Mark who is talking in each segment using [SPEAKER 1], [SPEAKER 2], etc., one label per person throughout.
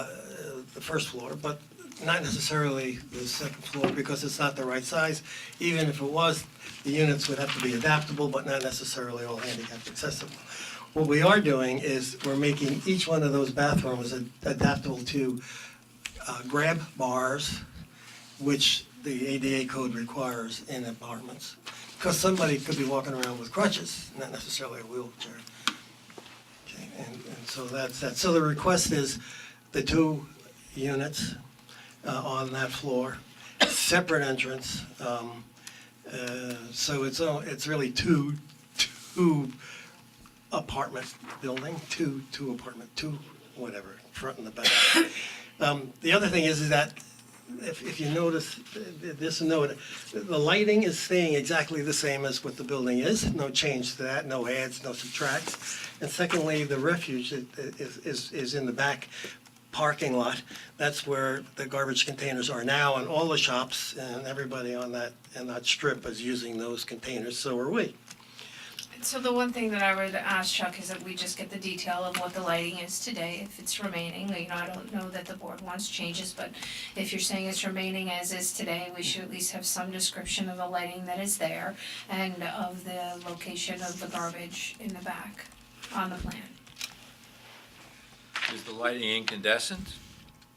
[SPEAKER 1] uh, the first floor, but not necessarily the second floor because it's not the right size. Even if it was, the units would have to be adaptable, but not necessarily all handicapped accessible. What we are doing is we're making each one of those bathrooms ad- adaptable to uh, grab bars, which the ADA code requires in apartments. Because somebody could be walking around with crutches, not necessarily a wheelchair. Okay, And, and so that's, that, so the request is the two units uh, on that floor, separate entrance. um, uh, So it's, all- it's really two, two apartment building, two, two apartment, two, whatever, front and the back. Um, The other thing is, is that if, if you notice th- th- this note, the lighting is staying exactly the same as what the building is, no change to that, no adds, no subtracts. And secondly, the refuge i- i- is, is, is in the back parking lot. That's where the garbage containers are now, and all the shops and everybody on that, and that strip is using those containers, so are we.
[SPEAKER 2] So the one thing that I would ask Chuck is that we just get the detail of what the lighting is today, if it's remaining, you know, I don't know that the board wants changes, but if you're saying it's remaining as is today, we should at least have some description of the lighting that is there and of the location of the garbage in the back on the plan.
[SPEAKER 3] Is the lighting incandescent?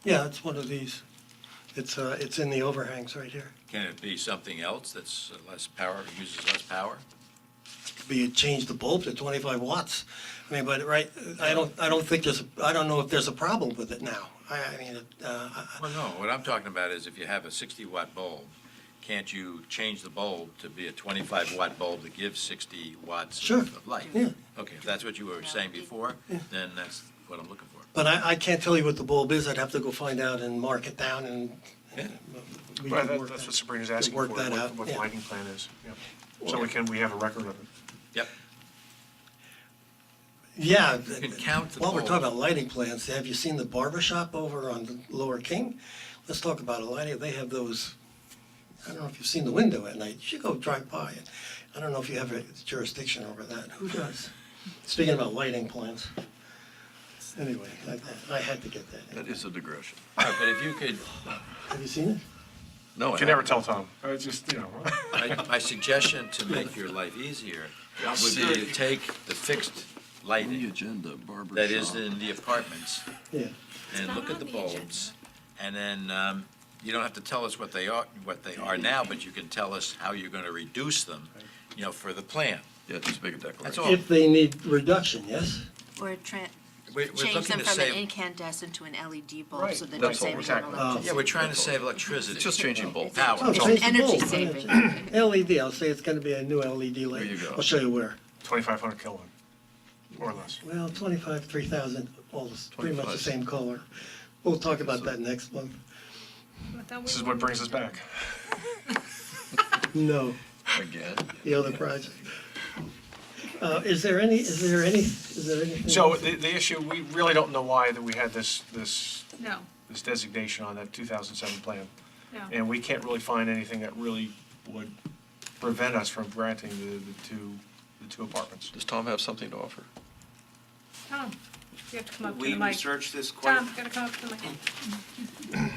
[SPEAKER 1] Yeah, it's one of these. It's, uh, it's in the overhangs right here.
[SPEAKER 3] Can it be something else that's less power, uses less power?
[SPEAKER 1] be change the bulb to 25 watts. I mean, but right, I don't, I don't think there's, I don't know if there's a problem with it now. I, I mean, uh, I-
[SPEAKER 3] Well, no, what I'm talking about is if you have a 60-watt bulb, can't you change the bulb to be a 25-watt bulb that gives 60 watts
[SPEAKER 1] Sure,
[SPEAKER 3] of- of light?
[SPEAKER 1] yeah.
[SPEAKER 3] Okay, if that's what you were saying before, then that's what I'm looking for.
[SPEAKER 1] but I, I can't tell you what the bulb is. I'd have to go find out and mark it down and. uh,
[SPEAKER 3] Yeah.
[SPEAKER 1] we
[SPEAKER 4] Right,
[SPEAKER 1] could
[SPEAKER 4] that-
[SPEAKER 1] work
[SPEAKER 4] that's
[SPEAKER 1] that.
[SPEAKER 4] what Sabrina's
[SPEAKER 1] could
[SPEAKER 4] asking for,
[SPEAKER 1] work
[SPEAKER 4] what
[SPEAKER 1] that
[SPEAKER 4] the
[SPEAKER 1] out,
[SPEAKER 4] what the
[SPEAKER 1] yeah.
[SPEAKER 4] lighting plan is, yeah. So we can, we have a record of it.
[SPEAKER 3] Yep,
[SPEAKER 1] Yeah.
[SPEAKER 3] You can count the
[SPEAKER 1] While we're talking
[SPEAKER 3] bulbs.
[SPEAKER 1] about lighting plans, have you seen the barber shop over on Lower King? Let's talk about a lighting. They have those, I don't know if you've seen the window at night. You should go drive by it. I don't know if you have a jurisdiction over that. Who does? Speaking about lighting plans. Anyway, I- I had to get that. in.
[SPEAKER 5] That is a digression.
[SPEAKER 3] All right, but if you could,
[SPEAKER 1] Have you seen it?
[SPEAKER 5] No, I
[SPEAKER 4] You can never
[SPEAKER 5] haven't.
[SPEAKER 4] tell Tom. I just, you know.
[SPEAKER 3] my- my suggestion to make your life easier would be to take the fixed
[SPEAKER 5] On the
[SPEAKER 3] lighting
[SPEAKER 5] agenda, barber
[SPEAKER 3] that is
[SPEAKER 5] shop.
[SPEAKER 3] in the apartments
[SPEAKER 1] Yeah.
[SPEAKER 3] and
[SPEAKER 2] not
[SPEAKER 3] look at
[SPEAKER 2] on
[SPEAKER 3] the
[SPEAKER 2] the agenda.
[SPEAKER 3] bulbs. And then, um, you don't have to tell us what they are, what they are now, but you can tell us how you're gonna reduce them, you know, for the plan.
[SPEAKER 5] Yeah, just make a
[SPEAKER 3] That's
[SPEAKER 5] declaration.
[SPEAKER 3] all.
[SPEAKER 1] If they need reduction, yes?
[SPEAKER 6] Or tran-
[SPEAKER 3] We're, we're looking
[SPEAKER 6] change them
[SPEAKER 3] to
[SPEAKER 6] from an
[SPEAKER 3] save,
[SPEAKER 6] incandescent to an LED bulb
[SPEAKER 4] Right.
[SPEAKER 6] Oh, so that you're
[SPEAKER 5] That's all we're
[SPEAKER 6] saving on
[SPEAKER 5] talking
[SPEAKER 1] about.
[SPEAKER 6] electricity.
[SPEAKER 3] yeah, we're trying to save electricity.
[SPEAKER 5] It's just changing bulbs.
[SPEAKER 3] Power.
[SPEAKER 1] Oh,
[SPEAKER 3] that's all.
[SPEAKER 1] change the
[SPEAKER 6] Energy
[SPEAKER 1] bulb.
[SPEAKER 6] saving.
[SPEAKER 1] LED, I'll say it's gonna be a new LED light.
[SPEAKER 5] you go.
[SPEAKER 1] I'll show you where.
[SPEAKER 4] 2,500 kilowatt, or less.
[SPEAKER 1] Well, twenty-five, three thousand, all this, pretty much the
[SPEAKER 5] 25.
[SPEAKER 1] same color. We'll talk about that next month.
[SPEAKER 4] This is what brings us back.
[SPEAKER 1] No,
[SPEAKER 5] Again.
[SPEAKER 1] the other project. Uh, is there any, is there any, is there anything?
[SPEAKER 4] So
[SPEAKER 1] else?
[SPEAKER 4] the, the issue, we really don't know why that we had this, this,
[SPEAKER 2] No,
[SPEAKER 4] this designation on that 2007 plan.
[SPEAKER 2] no.
[SPEAKER 4] And we can't really find anything that really would prevent us from granting the, the two, the two apartments.
[SPEAKER 5] Does Tom have something to offer?
[SPEAKER 2] Tom, you have to come up to
[SPEAKER 7] We
[SPEAKER 2] the mic.
[SPEAKER 7] researched this quite,
[SPEAKER 2] Tom, you gotta come up to the mic.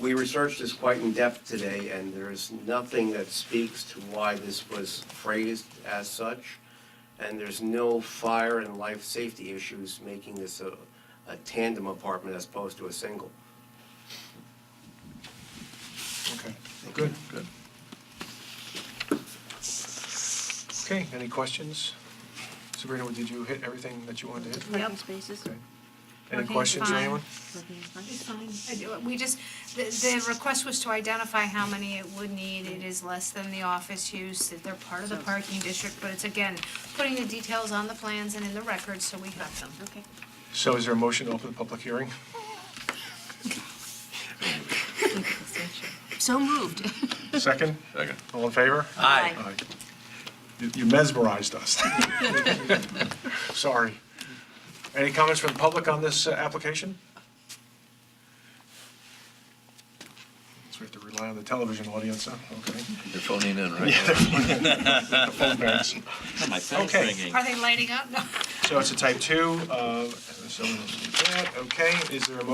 [SPEAKER 7] we researched this quite in depth today, and there is nothing that speaks to why this was phrased as such. And there's no fire and life safety issues making this a, a tandem apartment as opposed to a single.
[SPEAKER 4] Okay, good.
[SPEAKER 5] Good.
[SPEAKER 4] Okay, any questions? Sabrina, did you hit everything that you wanted to hit?
[SPEAKER 6] Parking spaces.
[SPEAKER 4] Okay. Any
[SPEAKER 2] Okay,
[SPEAKER 4] questions,
[SPEAKER 2] fine.
[SPEAKER 4] anyone?
[SPEAKER 6] parking is fine.
[SPEAKER 2] It's fine. I do- We just, the, the request was to identify how many it would need. It is less than the office use, that they're part of the parking district, but it's again, putting the details on the plans and in the records so we have them.
[SPEAKER 6] Okay.
[SPEAKER 4] So is there a motion to open the public hearing?
[SPEAKER 6] So moved.
[SPEAKER 4] Second?
[SPEAKER 5] Second.
[SPEAKER 4] All in favor?
[SPEAKER 3] Aye.
[SPEAKER 4] Aye. You- You mesmerized us. Sorry. Any comments from the public on this uh, application? So we have to rely on the television audience, huh? Okay.
[SPEAKER 5] You're phoning in, right?
[SPEAKER 4] Phone banks.
[SPEAKER 3] My phone's
[SPEAKER 4] Okay.
[SPEAKER 3] ringing.
[SPEAKER 2] Are they lighting up? No.
[SPEAKER 4] So it's a type two, uh, so we'll do that. okay, is there a motion